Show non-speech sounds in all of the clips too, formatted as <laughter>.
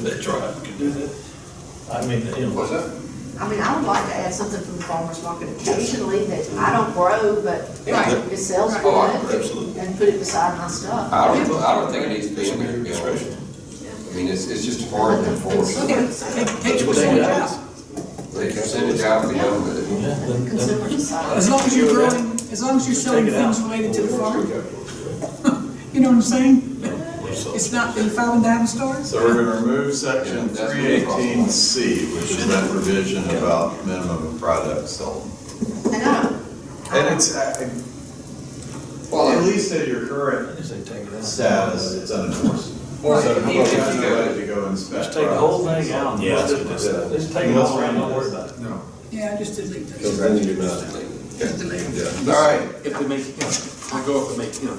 That's right, we can do that. I mean, you know, What's that? I mean, I would like to add something from the farmer's market occasionally that I don't grow, but Right. it sells Oh, I- good. absolutely. And put it beside my stuff. I don't, I don't think it needs to be it's in under there. your you know. discretion. I mean, it's, it's just a part But of the- the force. the- Can't you send it out? They can send it out, they go with it. Yeah, the then- Consumer decides. As long as you're growing, as long as you're selling Take it out. things related to the farm. You know what I'm saying? It's not in five and dime stores? So we're gonna remove Yeah, section that's three eighteen C, which is that provision about minimum of products sold. And I don't, And it's, uh, Well, at I- least at your current They say take it out. status, it's unenforced. So Right. if you have nobody to go inspect. Just take the whole products, thing out. Yeah. Just- just take it all out, don't worry about it. No. Yeah, I just delete Because those. then you not, Just delete them. all right, if they make, you know, they go up and make, you know,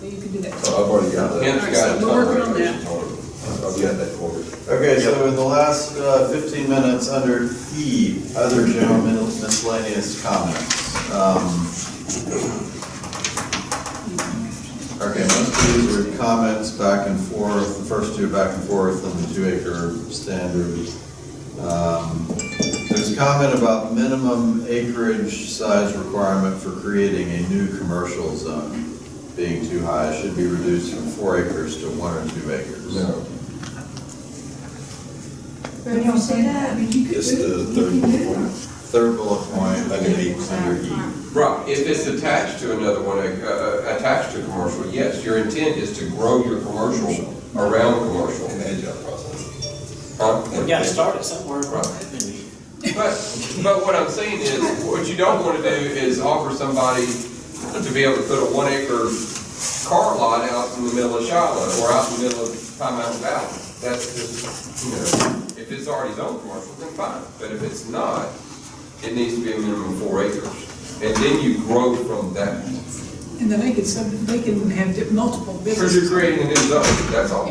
So you can do that. so I've already got that. Ken's got it. We're working on that. I've got that covered. Okay, so in the last uh, 15 minutes, under E, other general miscellaneous comments. um, Okay, most of these are comments back and forth, the first two back and forth on the two acre standard. Um, There's a comment about minimum acreage size requirement for creating a new commercial zone being too high, It should be reduced from four acres to one or two acres. No. But don't say that, I mean, you could. It's do it. the You third can do it. one. Third bullet point, under E, under E. Right, if it's attached to another one, uh, uh, attached to commercial, yes, your intent is to grow your commercial around commercial. An agile process. Huh? We gotta start it somewhere. Right. But, but what I'm saying is, what you don't wanna do is offer somebody to be able to put a one acre car lot out in the middle of Shiloh or out in the middle of Pine Mountain Valley. That's just, you know, if it's already zoned commercial, then fine, but if it's not, it needs to be a minimum of four acres. And then you grow from that. And then they could, sub- they can have di- multiple Because you're businesses. creating a new zone, that's all.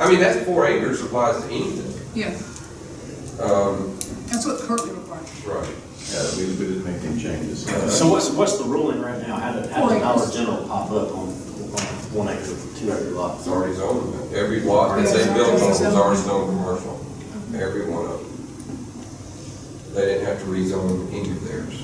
I mean, that four acres applies to anything. Yeah, Um, that's what currently required. right. Yeah, we, we didn't make any changes. So what's, what's the ruling right now? How did, how did Four acres. Dollar General pop up on, on one acre, two acre lots? It's already zoned, every lot that they built on was already zoned commercial, every one of them. They didn't have to rezone any of theirs.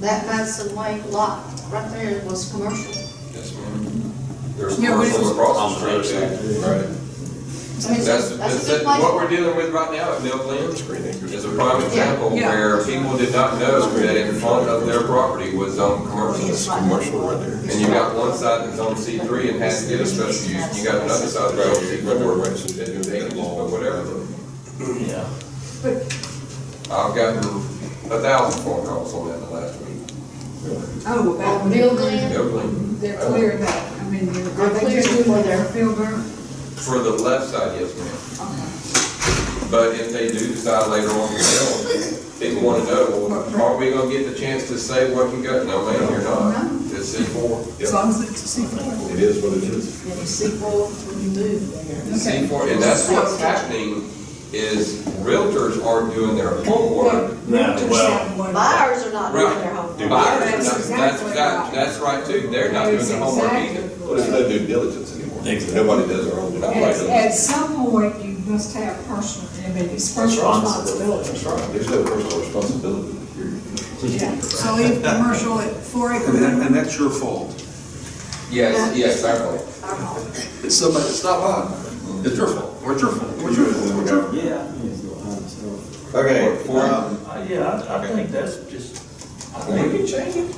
that Madison Way lot right there was commercial. Yes, ma'am. There's Yeah, but it commercial was- across the street. Right. I mean, That's, that's that's, a good it. place. what we're dealing with right now at Mill Glen is a prime example Yeah. where people did not know that in front of their property was zoned It's commercial. Oh, right. Commercial right there. And you got one side that's on C three and has to get a special use, you got another side that's on C four, where they can just put whatever. Yeah. I've gotten a thousand phone calls on that in the last week. Oh, Well, Bill Glenn, Everything. They're clearing that, I mean, they're. They're clearing for their- field burn? For the left side, yes, ma'am. But if they do decide later on to build, people want to know, well, are we gonna get the chance to say what you got? No, ma'am, you're not. It's C four. As long as it's C four. It is what it is. and you see, well, when you move there. C Okay. four, and that's what's happening is realtors aren't doing their homework. Realtors well, have one- Buyers are not doing their Right. homework. Buyers, That's that's, that's, exactly that- right. that's right too. They're not doing That's their homework exactly either. Well, there's no due diligence anymore. Exactly. Nobody does their own due That's At, right. diligence. at some point, you must have personal, I mean, it's personal responsibility. That's right. There's no personal responsibility. You're- Yeah. So leave commercial at four <laughs> And that, acre. and that's your fault. Yes, yes, definitely. Our home. It's somebody, it's not mine. It's your fault, or it's your fault, or it's your fault. or it's your fault. Yeah. I think it's a little high, so. Okay, Four- um, Uh, Yeah, I, I think that's just, I think, can change it.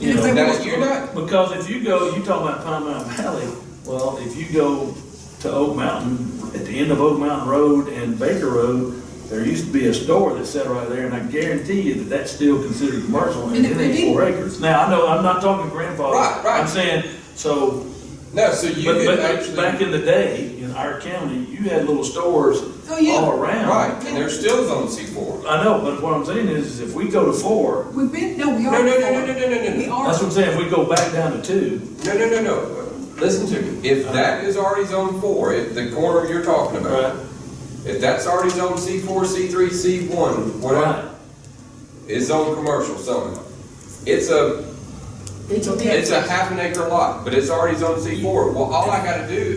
you know. Now, you're not, Because if you go, you talk about Pine Mountain Valley, well, if you go to Oak Mountain, at the end of Oak Mountain Road and Baker Road, there used to be a store that sat right there, and I guarantee you that that's still considered commercial, and And it it ain't may be. four acres. Now, I know, I'm not talking grandfather. Right, right. I'm saying, so, no, so you but, could but back actually, in the day, in our county, you had little stores Oh, yeah. all around. right, and they're still zone C four. I know, but what I'm saying is, is if we go to four, We've been, no, we No, are. no, no, four. no, no, no, no, no. We that's what are, I'm saying, if we go back down to two, No, no, no, no, listen to me, if that is already zone four, if the corner you're talking Uh-huh. Right. about, if that's already zone C four, C three, C one, Right. whatever, it's zone commercial somehow. It's a, It's a- it's a half an acre lot, but it's already zone C four, well, all I gotta do